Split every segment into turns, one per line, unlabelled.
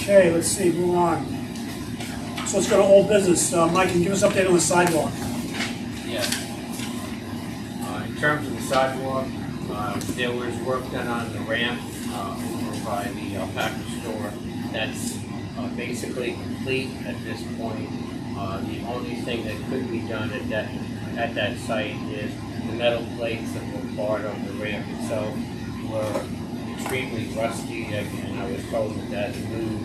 Okay, let's see, move on. So let's go to old business. Uh, Mike, can you give us an update on the sidewalk?
Yes. Uh, in terms of the sidewalk, uh, there was work done on the ramp, uh, over by the alpaca store. That's, uh, basically complete at this point. Uh, the only thing that could be done at that, at that site is the metal plates that were part of the ramp itself were extremely rusty, and I was told that new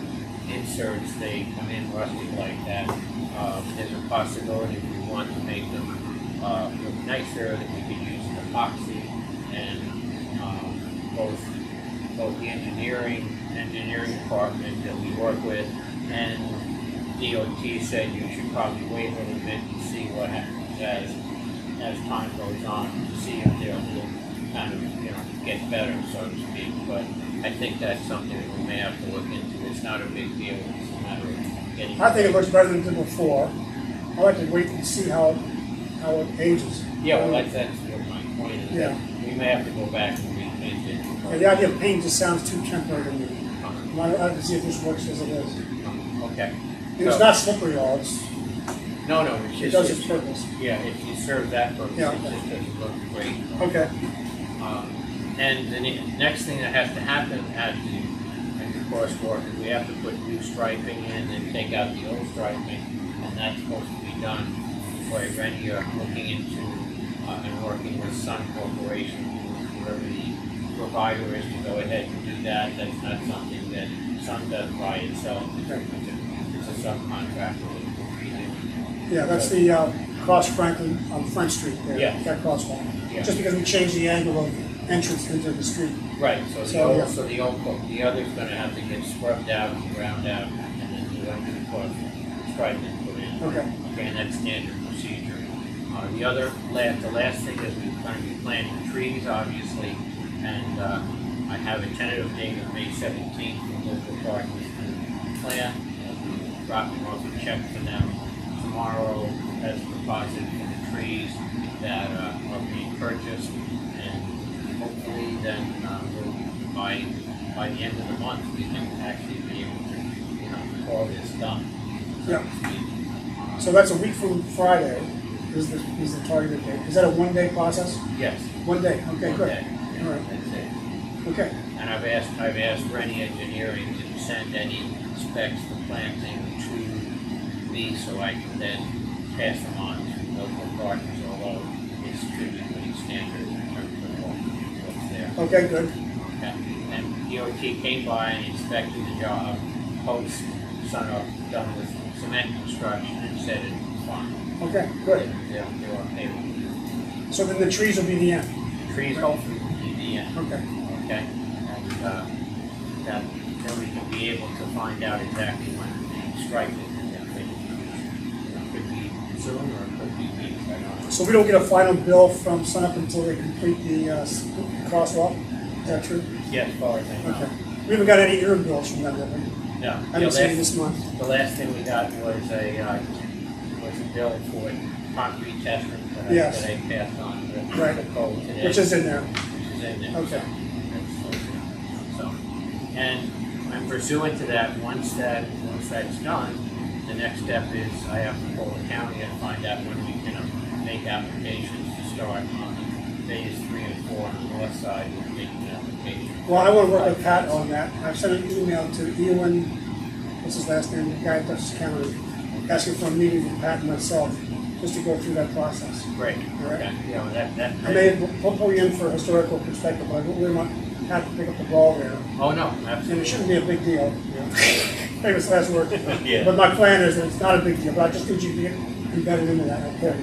inserts, they come in rusty like that. Um, there's a possibility if we want to make them uh, look nicer, that we could use epoxy and um, both both the engineering engineering department that we work with and DOT said you should probably wait a little bit and see what happens as as time goes on to see if they'll kind of you know get better so to speak. But I think that's something that we may have to look into. It's not a big deal. It's a matter of getting.
I think it looks better than it did before. I like to wait and see how, how it ages.
Yeah, well, that's, that's what my point is.
Yeah.
We may have to go back and revisit.
Yeah, Uh, The idea of paint just sounds too temporary to me.
Um,
I like to see if this works as it is.
Okay.
It's
So-
not slippery at all, it's,
No, no, it's
it
just.
does its purpose.
Yeah, if you serve that purpose,
Yeah.
it just doesn't look great.
Okay,
Um, And the ne- next thing that has to happen at the, at the crosswalk is we have to put new striping in and take out the old striping. And that's supposed to be done by Renier looking into, uh, and working with Sun Corporation, whoever the provider is to go ahead and do that. That's not something that Sun does by itself. It's
Okay.
a- it's a subcontractor. that will be doing
yeah, that's the, uh, cross Franklin on Front Street there.
Yeah.
That crosswalk.
Yeah.
Just because we changed the angle of entrance into the street.
it. Right, so the
So-
old, so the old, book- the other's gonna have to get scrubbed out, and ground out, and then the other new book, striped and put in.
Okay,
Okay, and that's standard procedure. Uh, the other, last, the last thing is we're gonna be planting trees, obviously, and, uh, I have a tentative date of May seventeenth for local park to plant. and Dropping off a check for them tomorrow as deposit for the trees that, uh, are being purchased. And hopefully then, uh, we'll, by, by the end of the month, we can actually be able to, you know, call this done.
yeah. So that's a week from Friday is the, is the targeted date. Is that a one-day process?
Yes.
One day, okay,
one
good.
day.
All right.
That's it.
Okay,
And I've asked, I've asked Rennie Engineering to send any specs for planting to me so I can then pass them on to local partners, although it's strictly pretty standard in terms of what- what's there.
okay, good.
Okay. And DOT came by and inspected the job, post sunup, done with cement construction and said it's fine.
Okay, good.
They're, they're okay with
So then the trees will be the end.
it. Trees hopefully will be the end.
Okay.
Okay, and, uh, that, then we can be able to find out exactly when the strike is, that thing. Could be soon or could be weeks, I don't know.
So we don't get a final bill from sunup until they complete the uh, s- crosswalk? Is that true?
Yeah, as far as I
Okay.
know.
We haven't got any interim bills from them, have we?
No, the
I haven't seen any
last-
this month.
The last thing we got was a, uh, was a bill for concrete testing that I,
Yes.
that I passed on to
Right.
the code today.
Which is in there.
which is in there.
Okay.
So, and and pursuant to that, once that, once that's done, the next step is I have to call the county and find out when we can uh, make applications to start on phase three and four on the north side with making applications.
Well, I want to work with Pat on that. I've sent an email to Ewan, what's his last name, the guy at Dutchess County, asking for a meeting with Pat and myself, just to go through that process.
Great,
All right.
okay, yeah, well, that, that.
I may put you in for historical perspective, but I don't really want Pat to pick up the ball there.
Oh, no,
And it
absolutely.
shouldn't be a big deal. Famous last word.
Yeah.
But my plan is that it's not a big deal, but I just need you to get embedded into that, okay?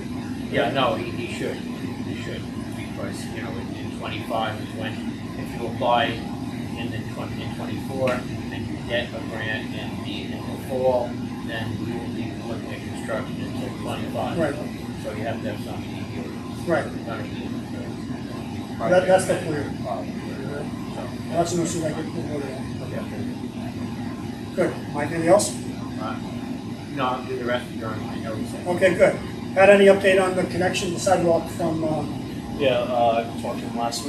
Yeah, no, he, he should, he should, because, you know, in, in twenty-five is when, if you apply in the twenty, in twenty-four, and you get a grant in the, in the fall, then you will be looking at construction until twenty-five.
Right.
So you have to have something to do.
Right. That- that's the plan.
So,
That's an issue that I get pulled over on.
okay.
Good. Mike, anything else?
Uh, No, I'll do the rest of your, I know you said.
Okay, good. Had any update on the connection, the sidewalk from, uh,
Yeah, uh, I talked to him last week.